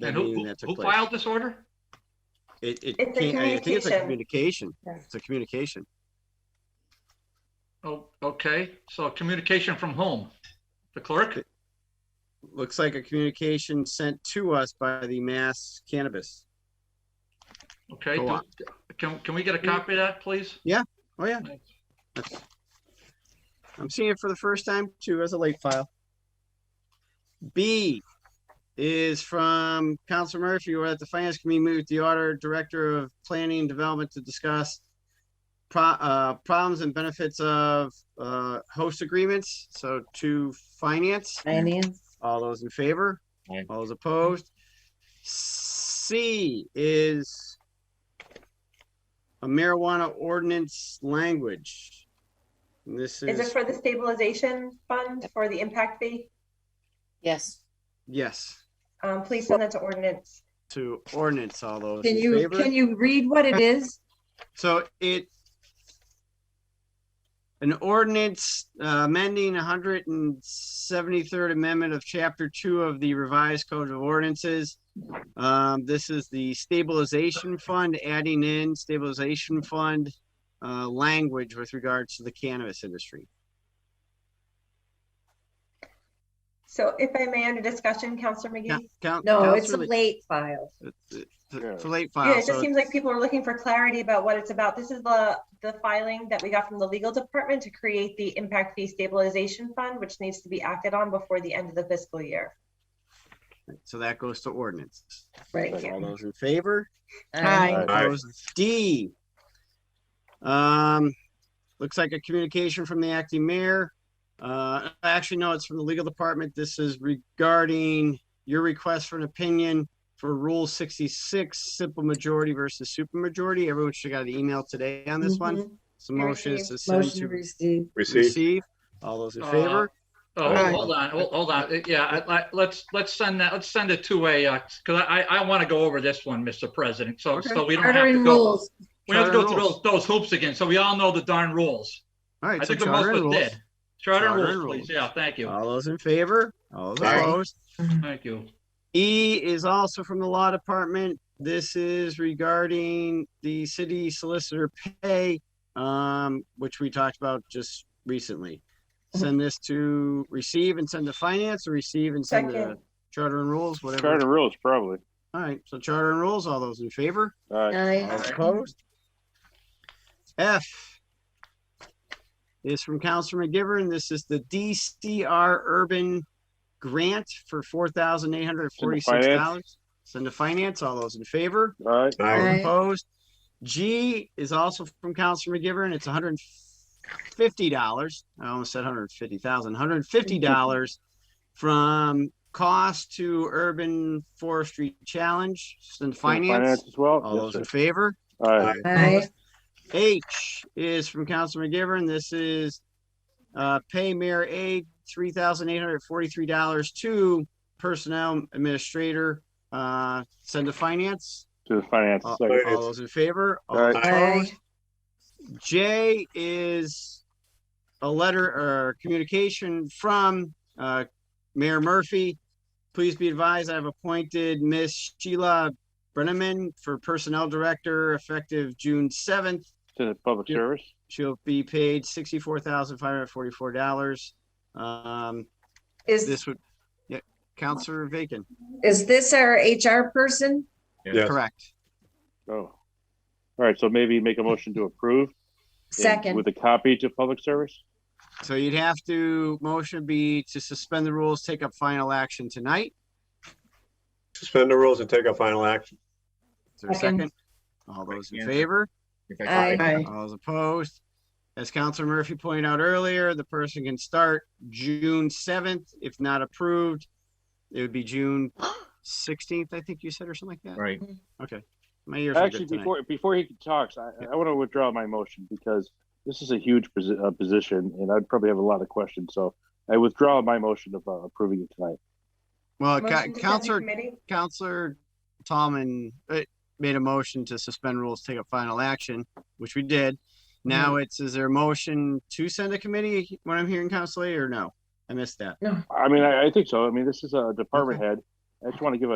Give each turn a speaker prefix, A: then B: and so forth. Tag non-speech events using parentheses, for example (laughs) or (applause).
A: that
B: And who,
A: meeting
B: who-
A: that took
B: who
A: place.
B: filed this order?
A: It, it
C: It's a
A: can't, I think it's a communication.
C: Yeah.
A: It's a communication.
B: Oh, okay, so communication from whom? The clerk?
A: Looks like a communication sent to us by the Mass Cannabis.
B: Okay,
A: Go on.
B: do- can, can we get a copy of that, please?
A: Oh, yeah.
B: Thanks.
A: That's- I'm seeing it for the first time too as a late file. B is from Council Murphy, where at the Finance Committee move the order Director of Planning and Development to discuss pro- uh, problems and benefits of uh, host agreements. So to Finance,
C: Finance,
A: all those in favor?
B: Aye.
A: All those opposed? C is a marijuana ordinance language. And This
C: is it
A: is,
C: for the stabilization fund for the impact fee?
D: Yes,
A: yes,
C: Um, please send that to ordinance.
A: to ordinance, all those
E: Can
A: in
E: you,
A: favor?
E: can you read what
A: (laughs)
E: it is?
A: So it an ordinance uh, amending hundred and seventy-third amendment of chapter two of the revised code of ordinances. Um, this is the stabilization fund, adding in stabilization fund uh, language with regards to the cannabis industry.
C: So if I may, under discussion, Counselor
A: Yeah,
C: McGee?
A: count-
E: No, it's a
A: Counselor Lee-
E: late file.
A: it's- it's For late
C: Yeah,
A: file,
C: it just
A: so
C: seems like people are looking for clarity about what it's about. This is the, the filing that we got from the legal department to create the impact fee stabilization fund, which needs to be acted on before the end of the fiscal year.
A: so that goes to ordinance.
C: Right.
A: All those in favor?
E: Aye.
A: Opposed? D. Um, looks like a communication from the acting mayor. Uh, actually, no, it's from the legal department. This is regarding your request for an opinion for Rule sixty-six, simple majority versus supermajority. Everyone should have got an email today on this one. So motion is to send
E: Mm-hmm. Motion
A: to
E: received.
F: Receive.
A: receive. All those in
B: Uh,
A: favor?
B: Oh,
A: Aye.
B: hold on, hold hold on, Uh, yeah, I, I, let's, let's send that, let's send it to a, uh, cause I, I want to go over this one, Mr. President, so,
A: Okay.
B: so we don't have
E: Charter
B: to
E: and
B: go.
E: rules.
B: We don't have to go
A: Charter
B: through
A: rules.
B: those, those hoops again, so we all know the darn rules.
A: All right,
B: Uh, I
A: so
B: think the
A: charter
B: most
A: and
B: was
A: rules.
B: dead. Charter and
A: Charter and
B: rules, please,
A: rules. Uh,
B: yeah, thank you,
A: All those in favor? All those
F: Aye.
A: opposed?
B: thank you.
A: E is also from the law department. This is regarding the city solicitor pay, um, which we talked about just recently. Send this to receive and send to finance or receive and send to
C: Second.
A: charter and rules, whatever.
F: Charter rules, probably.
A: All right, so charter and rules, all those in favor?
F: Aye.
A: All
E: Aye.
B: Aye.
A: opposed? F is from Counselor McGivern. This is the DCR Urban Grant for four thousand eight hundred forty-six dollars. Send to finance. All those in favor?
F: Aye.
E: Aye.
A: Opposed? G is also from Counselor McGivern. It's hundred and fifty dollars. I almost said hundred and fifty thousand, hundred and fifty dollars from cost to urban forestry challenge. Send to finance.
F: As well?
A: All
F: Yes,
A: those
F: sir.
A: in favor?
F: Aye.
E: Aye.
A: H is from Council McGivern. This is uh, pay mayor aide three thousand eight hundred forty-three dollars to personnel administrator. Uh, send to finance.
F: To the finance
A: Uh,
F: second.
A: All those in favor? All
F: Aye.
A: opposed? J is a letter or communication from uh, Mayor Murphy. Please be advised, I've appointed Miss Sheila Brenneman for Personnel Director effective June seventh.
F: To the public
A: Yeah.
F: service.
A: She'll be paid sixty-four thousand five hundred forty-four dollars. Um,
E: Is,
A: this would, yeah, Counselor Bacon,
E: is this our HR person?
A: correct.
F: Oh. All right, so maybe make a motion to approve. and- With
E: Second.
F: a copy to public service?
A: So you'd have to, motion be to suspend the rules, take up final action tonight.
G: Suspend the rules and take a final action.
A: Is there a
E: Second.
A: second? All those in favor?
E: Aye.
A: All those opposed? As Counselor Murphy pointed out earlier, the person can start June seventh. If not approved, it would be June sixteenth, I think you said, or something like that.
H: Right.
A: Okay. My ears are
F: Actually,
A: good tonight.
F: before, before he talks, I, I want to withdraw my motion because this is a huge posi- uh, position and I'd probably have a lot of questions. So I withdraw my motion of uh, approving it tonight.
A: Well,
C: Motion to
A: Ca-
C: send to
A: Counselor
C: committee?
A: Counselor Tomlin uh, made a motion to suspend rules, take up final action, which we did. Now it's, is there a motion to send a committee when I'm hearing Counselor Lee, or no? I missed that.
F: I mean, I, I think so. I mean, this is a department head. I just want to give a